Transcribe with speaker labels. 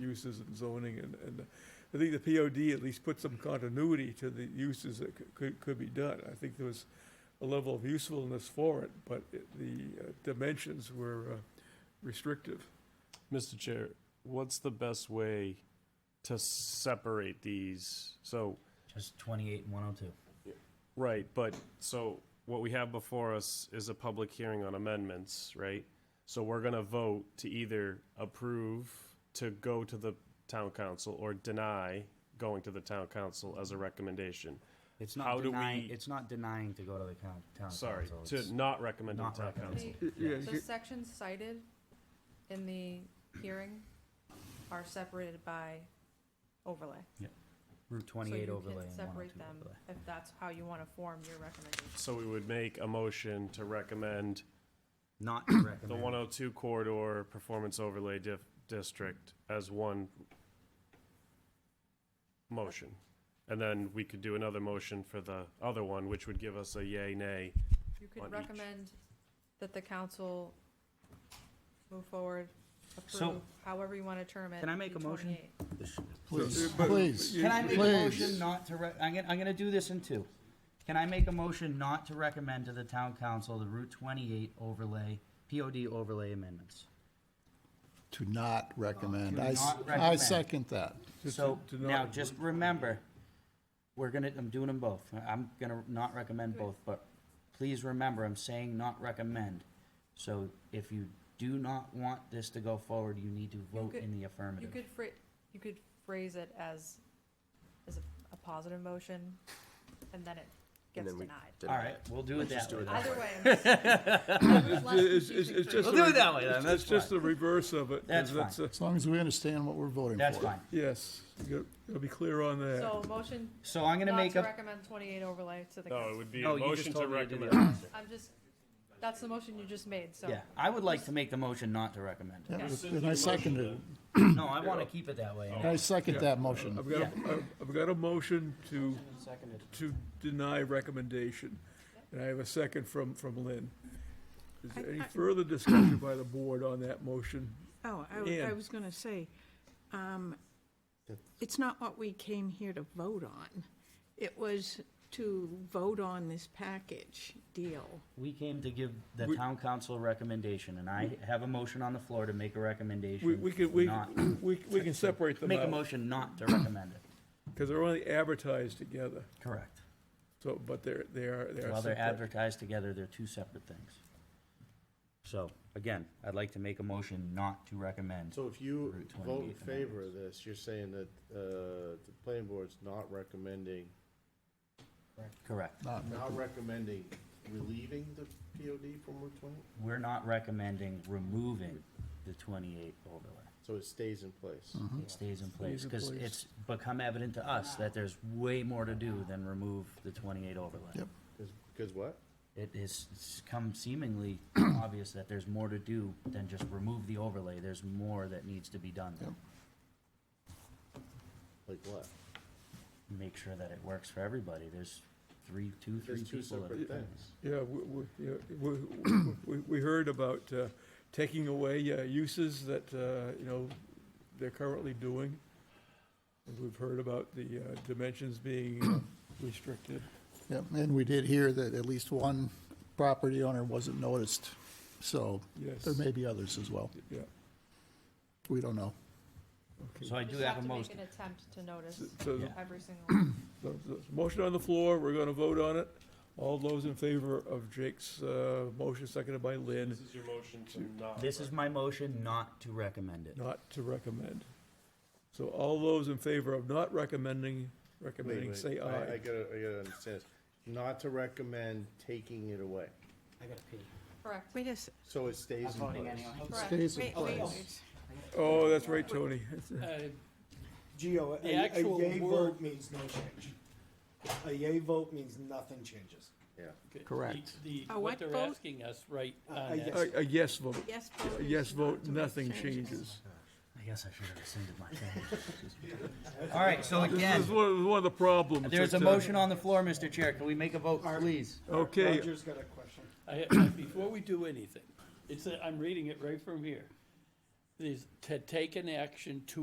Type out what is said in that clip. Speaker 1: uses and zoning and, and I think the POD at least put some continuity to the uses that c- could, could be done. I think there was a level of usefulness for it, but it- the uh, dimensions were uh, restrictive.
Speaker 2: Mr. Chair, what's the best way to separate these? So,
Speaker 3: Just 28 and 102.
Speaker 2: right, but, so what we have before us is a public hearing on amendments, right? So we're gonna vote to either approve to go to the town council or deny going to the town council as a recommendation.
Speaker 3: It's not
Speaker 2: How do
Speaker 3: denying,
Speaker 2: we-
Speaker 3: it's not denying to go to the coun- town
Speaker 2: Sorry,
Speaker 3: council.
Speaker 2: to
Speaker 3: It's-
Speaker 2: not recommend to the
Speaker 3: Not
Speaker 2: town
Speaker 3: recommend.
Speaker 2: council.
Speaker 1: Yeah,
Speaker 4: The
Speaker 1: you-
Speaker 4: sections cited in the hearing are separated by overlay.
Speaker 3: Route
Speaker 4: So
Speaker 3: 28
Speaker 4: you
Speaker 3: overlay
Speaker 4: can
Speaker 3: and
Speaker 4: Separate
Speaker 3: 102
Speaker 4: them
Speaker 3: overlay.
Speaker 4: if that's how you want to form your recommendation.
Speaker 2: So we would make a motion to recommend
Speaker 3: Not to
Speaker 2: the
Speaker 3: recommend.
Speaker 2: 102 corridor performance overlay dif- district as one motion. And then we could do another motion for the other one, which would give us a yay, nay.
Speaker 4: You
Speaker 2: On
Speaker 4: could
Speaker 2: each.
Speaker 4: recommend that the council move forward,
Speaker 3: So-
Speaker 4: approve, however you want to term it.
Speaker 3: Can I make a
Speaker 4: the
Speaker 3: motion?
Speaker 4: 28.
Speaker 5: Please,
Speaker 1: uh, but-
Speaker 5: please.
Speaker 1: you-
Speaker 3: Can I make a
Speaker 5: Please.
Speaker 3: motion not to, re- I'm gonna, I'm gonna do this in two. Can I make a motion not to recommend to the town council the Route 28 overlay, POD overlay amendments?
Speaker 5: To not recommend.
Speaker 3: To
Speaker 5: I, s-
Speaker 3: not
Speaker 5: I
Speaker 3: recommend.
Speaker 5: second that.
Speaker 1: Just
Speaker 3: So
Speaker 1: to- to not-
Speaker 3: now, just remember, we're gonna, I'm doing them both. I'm gonna not recommend both, but please remember, I'm saying not recommend. So if you do not want this to go forward, you need to vote
Speaker 4: could-
Speaker 3: in the
Speaker 4: You
Speaker 3: affirmative.
Speaker 4: could phrase, you could phrase it as, as a- a positive motion, and then it gets
Speaker 6: then we
Speaker 4: denied.
Speaker 3: All right, we'll do it that way.
Speaker 4: Either way. I'm just- it's less
Speaker 1: It's, it's-
Speaker 4: confusing
Speaker 1: it's
Speaker 4: for
Speaker 1: just.
Speaker 4: you.
Speaker 3: We'll
Speaker 1: the
Speaker 3: do it that
Speaker 1: re-
Speaker 3: way then,
Speaker 1: it's-
Speaker 3: that's
Speaker 1: It's just
Speaker 3: fine.
Speaker 1: the reverse of it. 'cause
Speaker 3: That's
Speaker 1: it's
Speaker 5: As long as we understand what we're voting for.
Speaker 3: That's fine.
Speaker 1: a- Yes, you will be clear on that.
Speaker 4: So motion
Speaker 3: So I'm gonna
Speaker 4: not
Speaker 3: make
Speaker 4: to
Speaker 3: a,
Speaker 4: recommend twenty-eight overlay to the
Speaker 2: No, it
Speaker 4: council.
Speaker 2: would be
Speaker 3: No,
Speaker 2: a
Speaker 3: you just
Speaker 2: motion to
Speaker 3: told me to do the
Speaker 2: recommend.
Speaker 4: I'm just, that's the motion you just made, so.
Speaker 3: yeah, I would like to make the motion not to recommend.
Speaker 5: Yeah,
Speaker 4: Okay.
Speaker 5: And I second it.
Speaker 3: No, I wanna keep it that way.
Speaker 5: And
Speaker 1: Oh.
Speaker 5: I second that motion.
Speaker 1: I've got, a- I've- I've got a motion to,
Speaker 3: Seconded.
Speaker 1: to deny recommendation, and I have a second from, from Lynn. Is there any
Speaker 7: I- I-
Speaker 1: further discussion by the board on that motion?
Speaker 7: Oh, I, w-
Speaker 1: Yeah.
Speaker 7: I was gonna say, um, it's not what we came here to vote on. It was to vote on this package deal.
Speaker 3: We came to give the
Speaker 1: We-
Speaker 3: town council a recommendation, and I have a motion on the floor to make a recommendation.
Speaker 1: We, we can, we,
Speaker 3: not-
Speaker 1: we we can separate them
Speaker 3: Make a
Speaker 1: out,
Speaker 3: motion not to recommend it.
Speaker 1: because they're only advertised together,
Speaker 3: Correct.
Speaker 1: so, but they're, they are, they are.
Speaker 3: While they're
Speaker 1: separate.
Speaker 3: advertised together, they're two separate things. So, again, I'd like to make a motion not to recommend.
Speaker 8: So if you
Speaker 3: Route
Speaker 8: vote in
Speaker 3: 28
Speaker 8: favor of this, you're saying that uh, the planning board's not recommending,
Speaker 3: Correct.
Speaker 5: Not
Speaker 8: not recommending relieving the POD from Route 20?
Speaker 3: We're not recommending removing the twenty-eight overlay.
Speaker 8: So it stays in place?
Speaker 3: It stays in place,
Speaker 1: Hmm. Stays in
Speaker 3: because
Speaker 1: place.
Speaker 3: it's become evident to us that there's way more to do than remove the twenty-eight overlay.
Speaker 5: Yep.
Speaker 8: Because what?
Speaker 3: It is, it's come seemingly obvious that there's more to do than just remove the overlay. There's more that needs to be done.
Speaker 5: Yep.
Speaker 8: Like what?
Speaker 3: Make sure that it works for everybody. There's three, two, three
Speaker 8: There's two
Speaker 3: people. that-
Speaker 8: separate things.
Speaker 1: Yeah, we, we, yeah, we, we- we, we heard about, uh, taking away uh, uses that, uh, you know, they're currently doing. And We've heard about the, uh, dimensions being uh, restricted.
Speaker 5: Yep, and we did hear that at least one property owner wasn't noticed, so
Speaker 1: Yes.
Speaker 5: there may be others as well.
Speaker 1: Yeah,
Speaker 5: We don't know.
Speaker 3: So I do
Speaker 4: Just
Speaker 3: have
Speaker 4: have
Speaker 3: a
Speaker 4: to make
Speaker 3: motion.
Speaker 4: an attempt to notice
Speaker 1: so the-
Speaker 4: every single one.
Speaker 1: the, the motion on the floor, we're gonna vote on it. All those in favor of Jake's, uh, motion seconded by Lynn,
Speaker 2: This is your motion to not.
Speaker 3: This is my motion not to recommend it.
Speaker 1: not to recommend. So all those in favor of not recommending,
Speaker 8: Wait,
Speaker 1: recommending,
Speaker 8: wait,
Speaker 1: say
Speaker 8: I I
Speaker 1: aye.
Speaker 8: gotta, I gotta understand this. Not to recommend taking it away.
Speaker 3: I gotta pee.
Speaker 4: Correct.
Speaker 7: Wait a s-
Speaker 8: So it stays in place.
Speaker 4: Correct.
Speaker 5: Stays in
Speaker 7: wait, wait,
Speaker 5: place.
Speaker 7: wait.
Speaker 1: Oh, that's right, Tony.
Speaker 9: Geo, a,
Speaker 10: The
Speaker 9: a
Speaker 10: actual
Speaker 9: yay
Speaker 10: word-
Speaker 9: vote means no change. A yay vote means nothing changes.
Speaker 8: Yeah.
Speaker 5: Correct.
Speaker 10: The,
Speaker 7: A
Speaker 10: the- what
Speaker 7: what
Speaker 10: they're
Speaker 7: vote?
Speaker 10: asking us right
Speaker 9: a
Speaker 10: on
Speaker 9: Uh, yes.
Speaker 10: that.
Speaker 1: A, a yes vote.
Speaker 7: Yes vote.
Speaker 1: A
Speaker 7: is
Speaker 1: yes
Speaker 7: not
Speaker 1: vote,
Speaker 7: to make
Speaker 1: nothing
Speaker 7: changes.
Speaker 1: changes.
Speaker 3: I guess I should have rescinded my thing. All right, so
Speaker 1: This
Speaker 3: again,
Speaker 1: is one, one of the problems.
Speaker 3: there's a
Speaker 1: that, uh,
Speaker 3: motion on the floor, Mr. Chair. Can we make a vote, please?
Speaker 1: Okay,
Speaker 9: Roger's got a question.
Speaker 10: I, I- before we do anything, it's, a- I'm reading it right from here. It is to take an action to